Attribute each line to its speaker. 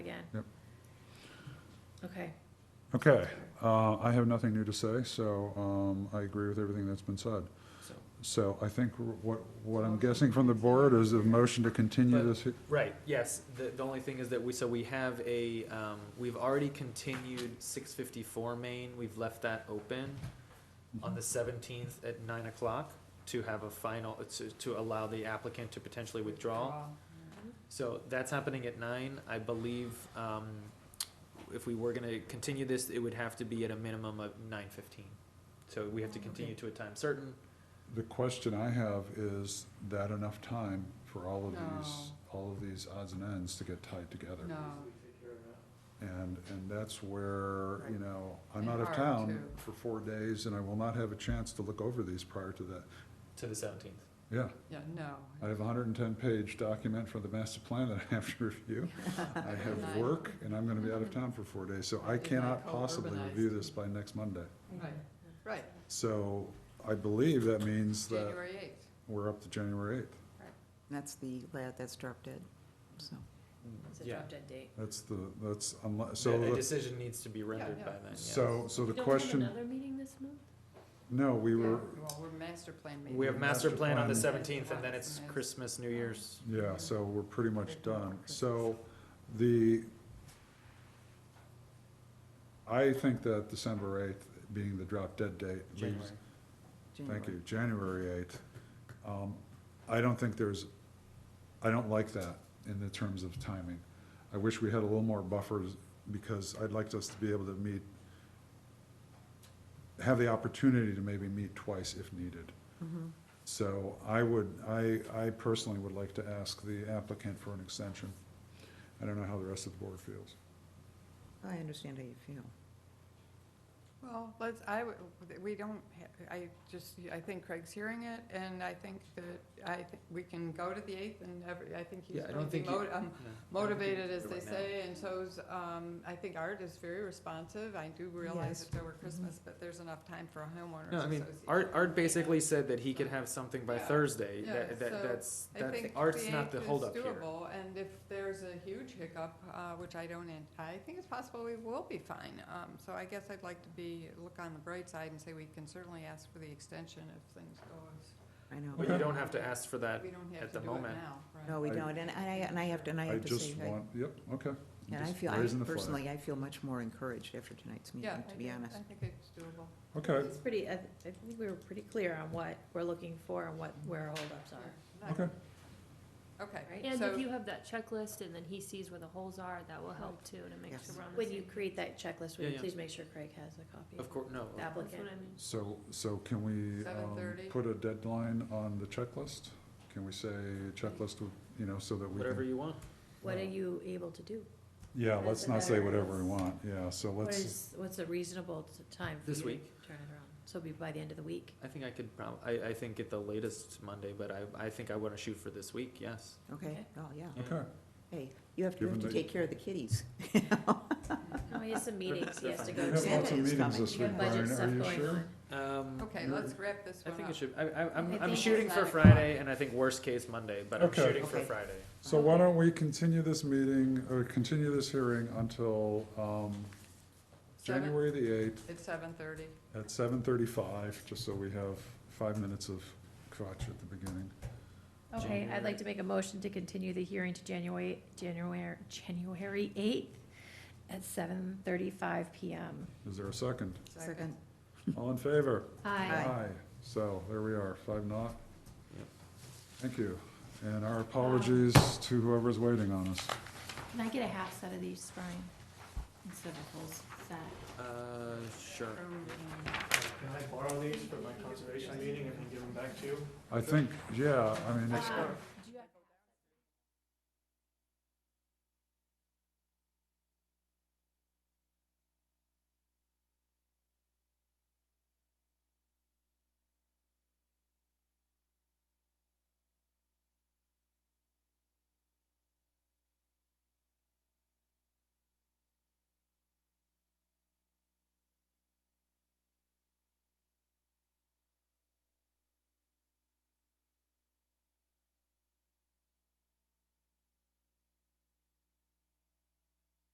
Speaker 1: Yep.
Speaker 2: Okay,
Speaker 1: Okay, uh, I have nothing new to say, so, um, I agree with everything that's been said.
Speaker 3: So,
Speaker 1: So I think what, what I'm guessing from the board is a motion to continue
Speaker 3: But-
Speaker 1: this, he-
Speaker 3: right, yes, the, the only thing is that we, so we have a, um, we've already continued six fifty-four Main, we've left that open on the seventeenth at nine o'clock to have a final, uh, to, to allow the applicant to potentially withdraw. So that's happening at nine, I believe, um, if we were gonna continue this, it would have to be at a minimum of nine fifteen. So we have to continue to a time certain,
Speaker 1: the question I have is that enough time for all of these,
Speaker 4: No.
Speaker 1: all of these odds and ends to get tied together?
Speaker 4: No,
Speaker 1: And, and that's where, you
Speaker 4: Right.
Speaker 1: know, I'm
Speaker 4: And
Speaker 1: out of
Speaker 4: hard,
Speaker 1: town
Speaker 4: too.
Speaker 1: for four days and I will not have a chance to look over these prior to that.
Speaker 3: to the seventeenth.
Speaker 1: Yeah,
Speaker 4: yeah,
Speaker 1: I
Speaker 4: no.
Speaker 1: have a hundred and ten page document for the master plan that I have to review. I have work and I'm gonna be
Speaker 2: Mm-hmm.
Speaker 1: out of town for four days, so I
Speaker 4: It's like
Speaker 1: cannot
Speaker 2: oh,
Speaker 1: possibly
Speaker 4: co-urbanized.
Speaker 1: review this by next Monday.
Speaker 4: Right, right,
Speaker 1: So I believe that means that
Speaker 4: January eighth.
Speaker 1: we're up to January eighth.
Speaker 5: That's the, la- that's drop dead, so.
Speaker 2: it's a
Speaker 3: Yeah.
Speaker 2: drop dead date.
Speaker 1: That's the, that's unless, so,
Speaker 3: A
Speaker 1: the-
Speaker 3: decision needs to be rendered
Speaker 4: yeah.
Speaker 3: by then, yes.
Speaker 1: so, so
Speaker 2: We
Speaker 1: the
Speaker 2: don't have
Speaker 1: question,
Speaker 2: Another meeting this month?
Speaker 1: no, we were,
Speaker 4: Well, we're master plan meeting.
Speaker 3: We have master plan on the
Speaker 4: Master plan.
Speaker 3: seventeenth, and then it's
Speaker 4: Yes.
Speaker 3: Christmas, New Year's.
Speaker 1: yeah, so we're pretty much done. So the, I think that December eighth being the drop dead date leaves, Thank you, January eighth. Um, I don't think there's, I don't like that in the terms of timing. I wish we had a little more buffers, because I'd like us to be able to meet, have the opportunity to maybe meet twice if needed.
Speaker 5: Mm-hmm.
Speaker 1: So I would, I, I personally would like to ask the applicant for an extension. I don't know how the rest of the board feels.
Speaker 5: I understand how you feel.
Speaker 4: Well, let's, I, would- we don't, ha- I just, I think Craig's hearing it, and I think that, I, think we can go to the eighth, and every, I think he's
Speaker 3: Yeah, I
Speaker 4: going
Speaker 3: don't
Speaker 4: to be
Speaker 3: think you-
Speaker 4: mo- um,
Speaker 3: No, I don't think
Speaker 4: motivated,
Speaker 3: we
Speaker 4: as
Speaker 3: do
Speaker 4: they
Speaker 3: it now.
Speaker 4: say, and so's, um, I think Art is very responsive. I do realize
Speaker 5: Yes.
Speaker 4: that there were Christmas, but there's enough time for a homeowners
Speaker 3: No, I mean,
Speaker 4: association.
Speaker 3: Art, Art basically said that he could have something by
Speaker 4: Yeah.
Speaker 3: Thursday,
Speaker 4: Yeah,
Speaker 3: that, that,
Speaker 4: so
Speaker 3: that's,
Speaker 4: I
Speaker 3: that's,
Speaker 4: think
Speaker 3: Art's
Speaker 4: the
Speaker 3: not the
Speaker 4: eighth is
Speaker 3: holdup here.
Speaker 4: doable, And if there's a huge hiccup, uh, which I don't, an- I think it's possible we will be fine. Um, So I guess I'd like to be, look on the bright side and say we can certainly ask for the extension if things go as,
Speaker 5: I know.
Speaker 3: But you don't have to ask for that,
Speaker 4: we don't
Speaker 3: At
Speaker 4: have to
Speaker 3: the
Speaker 4: do it
Speaker 3: moment.
Speaker 4: now, right?
Speaker 5: No, we
Speaker 1: I-
Speaker 5: don't, and I, and I have to, and I
Speaker 1: I
Speaker 5: have to say,
Speaker 1: just
Speaker 5: I-
Speaker 1: want, yep, okay. I'm
Speaker 5: and I
Speaker 1: just
Speaker 5: feel, I
Speaker 1: raising the flag.
Speaker 5: personally, I feel much more encouraged after tonight's
Speaker 4: Yeah,
Speaker 5: meeting,
Speaker 4: I
Speaker 5: to
Speaker 4: do.
Speaker 5: be honest.
Speaker 4: I think it's doable.
Speaker 1: Okay,
Speaker 2: It's pretty, I, I think we were pretty clear on what we're looking for and what, where our holdups are,
Speaker 1: okay.
Speaker 4: Okay.
Speaker 6: And
Speaker 4: so-
Speaker 6: if you have that checklist and then he sees where the holes are, that will help too to make
Speaker 5: Yes.
Speaker 6: sure we're on the
Speaker 2: When you
Speaker 6: same.
Speaker 2: create that checklist, would
Speaker 3: Yeah,
Speaker 2: you
Speaker 3: yeah.
Speaker 2: please make sure Craig has a copy?
Speaker 3: of course, no,
Speaker 2: The
Speaker 6: That's what
Speaker 2: applicant.
Speaker 6: I mean.
Speaker 1: So, so can we, um,
Speaker 4: 7:30?
Speaker 1: put a deadline on the checklist? Can we say checklist, would- you know, so that we
Speaker 3: whatever
Speaker 1: can,
Speaker 3: you want.
Speaker 2: What are you able to do?
Speaker 1: yeah,
Speaker 2: what
Speaker 1: let's
Speaker 2: is the
Speaker 1: not say
Speaker 2: matter?
Speaker 1: whatever we want, yeah, so
Speaker 2: What
Speaker 1: let's,
Speaker 2: is, what's a reasonable t- time for you
Speaker 3: This
Speaker 2: to turn
Speaker 3: week.
Speaker 2: it around? So it'll be by the end of the week?
Speaker 3: I think I could prob, I, I think at the latest Monday, but I, I think I wanna shoot for this week, yes.
Speaker 5: Okay,
Speaker 2: Okay.
Speaker 5: oh, yeah.
Speaker 3: Yeah.
Speaker 1: okay,
Speaker 5: Hey, you have to, you have
Speaker 1: Given
Speaker 5: to
Speaker 1: that-
Speaker 5: take care of the kiddies.
Speaker 2: No, he has some meetings he has to
Speaker 1: we
Speaker 2: go
Speaker 1: have lots
Speaker 5: Santa
Speaker 1: of
Speaker 2: to.
Speaker 5: is
Speaker 1: meetings
Speaker 5: coming.
Speaker 1: this
Speaker 2: You got
Speaker 1: week,
Speaker 2: budget
Speaker 1: Brian,
Speaker 2: stuff
Speaker 1: are you
Speaker 2: going
Speaker 1: sure?
Speaker 2: on.
Speaker 3: Um,
Speaker 4: Okay,
Speaker 1: You're-
Speaker 4: let's wrap this
Speaker 3: I
Speaker 4: one up.
Speaker 3: think it should, I, I, I'm,
Speaker 2: I
Speaker 3: I'm
Speaker 2: think
Speaker 3: shooting
Speaker 4: it's
Speaker 3: for
Speaker 4: nine o'clock.
Speaker 3: Friday, and I think worst case Monday, but I'm
Speaker 1: Okay.
Speaker 3: shooting for
Speaker 5: Okay.
Speaker 3: Friday.
Speaker 1: So why don't we continue this meeting, or continue this hearing until, um,
Speaker 4: Seven-
Speaker 1: January the eighth
Speaker 4: It's seven thirty.
Speaker 1: at seven thirty-five, just so we have five minutes of crotch at the beginning.
Speaker 6: Okay, I'd
Speaker 3: January.
Speaker 6: like to make a motion to continue the hearing to January, January, January eighth at seven thirty-five PM.
Speaker 1: Is there a second?
Speaker 5: Second,
Speaker 1: All in favor?
Speaker 6: Aye.
Speaker 1: So there we are, five naught.
Speaker 3: Yep.
Speaker 1: Thank you. And our apologies to whoever's waiting on us.
Speaker 6: Can I get a half set of these, Brian? Instead of a whole set?
Speaker 3: Uh, sure.
Speaker 7: Can I borrow these for my conservation meeting and then give them back to you?
Speaker 1: I think, yeah, I mean, it's,
Speaker 6: Uh,